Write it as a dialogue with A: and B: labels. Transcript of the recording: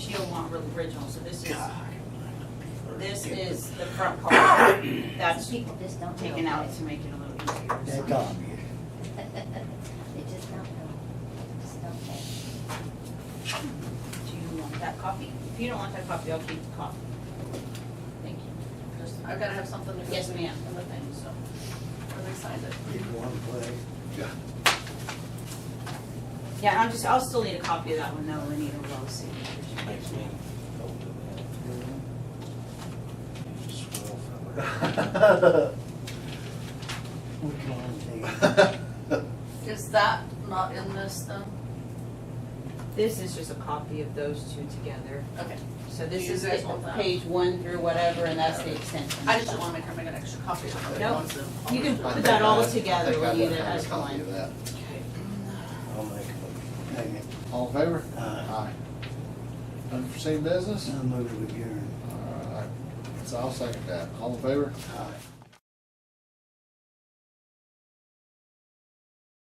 A: real original, so this is,
B: God.
A: this is the front part. That's
C: People just don't know.
A: taken out to make it a little easier. to
B: That's
A: sign.
B: obvious.
C: They just don't know. Just don't care.
A: Do you want that copy? If you don't want that copy, I'll keep the copy. Thank you.
D: Just- I've gotta have something to.
A: Yes, ma'am.
D: In the thing, so, when they signed it.
B: It's one place.
A: Yeah, and I'm just, I'll still need a copy of that one though, we need a row signature.
E: Makes me go to that. You just swirl from it.
B: Which one is it?
F: That's
D: Is that not in this then?
A: This is just a copy of those two together.
D: Okay,
A: So this
D: You
A: is
D: guys
A: the
D: want that?
A: page one through whatever, and that's the extension.
D: I just wanna make sure I got an extra copy of it.
A: Nope.
D: once and-
A: You can put that all together when you do that as
F: copy
A: one.
F: of that.
B: I'll make a Hang it.
F: All in favor?
B: Aye.
F: Unforeseen business?
B: I'll move it again.
F: All right, so I'll second that. All in favor?
B: Aye.